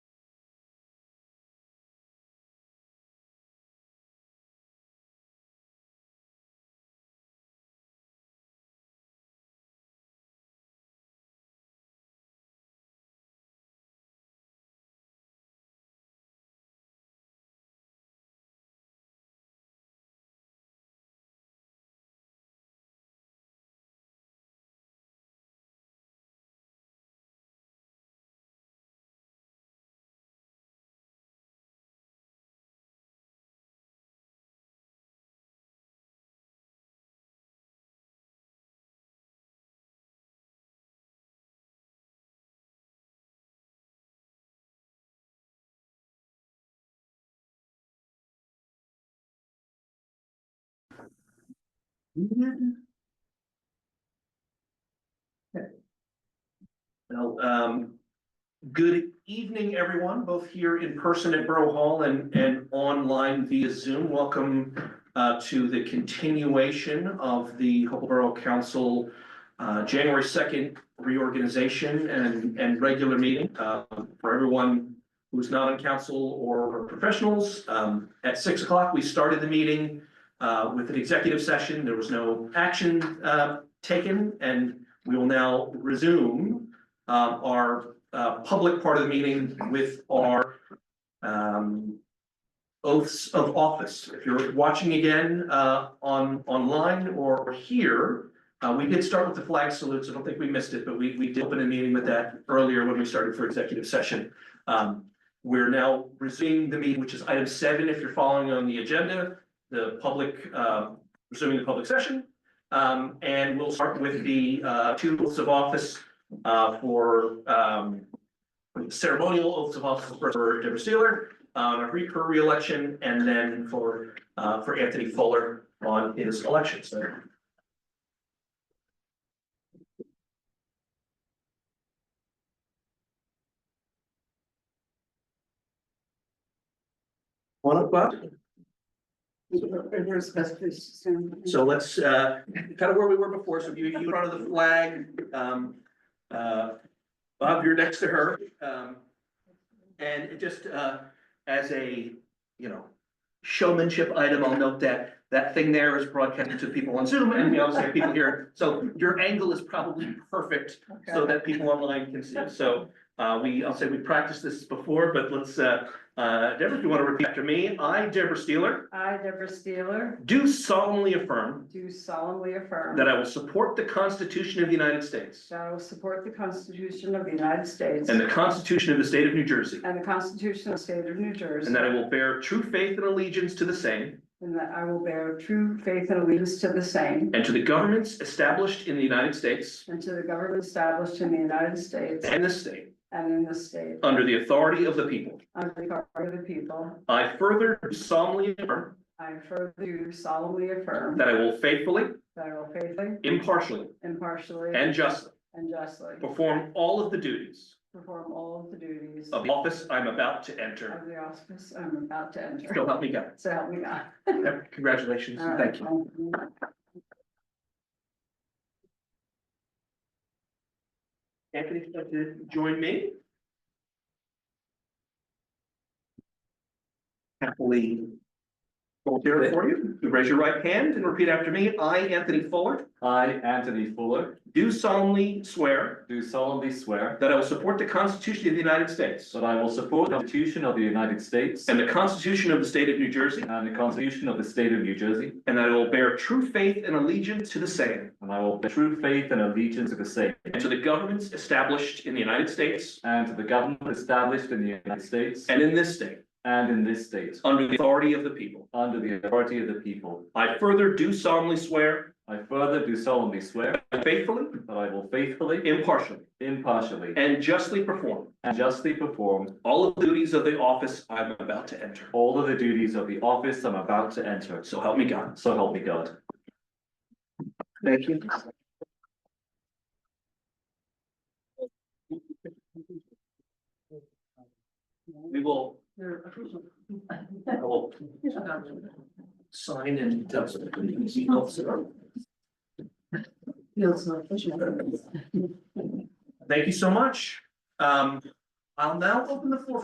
Well, um, good evening, everyone, both here in person at Borough Hall and, and online via Zoom. Welcome uh, to the continuation of the Hopewell Borough Council uh, January second reorganization and, and regular meeting. Uh, For everyone who's not on council or professionals, um, at six o'clock, we started the meeting uh, with an executive session. There was no action uh, taken, and we will now resume um, our uh, public part of the meeting with our um, oaths of office. If you're watching again uh, on, online or here, uh, we did start with the flag salutes. I don't think we missed it, but we, we did open a meeting with that earlier when we started for executive session. Um, We're now resuming the meeting, which is item seven, if you're following on the agenda, the public, uh, resuming the public session. Um, And we'll start with the uh, two oaths of office uh, for um, ceremonial oaths of office for Deborah Steeler, um, her- her reelection, and then for, uh, for Anthony Fuller on his election. So One up, Bob? Where's best place to stand? So let's, uh, kind of where we were before, so you, you in front of the flag, um, uh, Bob, you're next to her, um. And it just, uh, as a, you know, showmanship item, I'll note that that thing there is broadcasted to people on Zoom and we also have people here. So your angle is probably perfect so that people online can see, so, uh, we, I'll say we practiced this before, but let's, uh, uh, Deborah, if you want to repeat after me, I, Deborah Steeler, I, Deborah Steeler, do solemnly affirm do solemnly affirm that I will support the Constitution of the United States that I will support the Constitution of the United States and the Constitution of the State of New Jersey, and the Constitution of the State of New Jersey, and that I will bear true faith and allegiance to the same and that I will bear true faith and allegiance to the same and to the governments established in the United States and to the government established in the United States and this state and in this state, under the authority of the people. under the authority of the people. I further solemnly affirm I further do solemnly affirm that I will faithfully, that I will faithfully, impartially, impartially, and justly and justly perform all of the duties perform all of the duties of the office I'm about to of enter. the office I'm about to enter. So help me God. So help me God. Congratulations, and thank you. Anthony, would you like to join me? Happily. hold there for you. You Raise your right hand and repeat after me. I, Anthony Fuller, I, Anthony Fuller, do solemnly swear do solemnly swear that I will support the Constitution of the United States that I will support the Constitution of the United States and the Constitution of the State of New Jersey, and the Constitution of the State of New Jersey, and that I will bear true faith and allegiance to the same and I will bear true faith and allegiance to the same and to the governments established in the United States and to the government established in the United States and in this state, and in this state, under the authority of the people. under the authority of the people. I further do solemnly swear I further do solemnly swear faithfully, that I will faithfully, impartially, impartially, and justly perform and justly perform all of the duties of the office I'm about to enter. all of the duties of the office I'm about to enter. So help me God. So help me God. Thank you. We will, I will sign and. Feels like fishing. Thank you so much. Um, I'll now open the floor for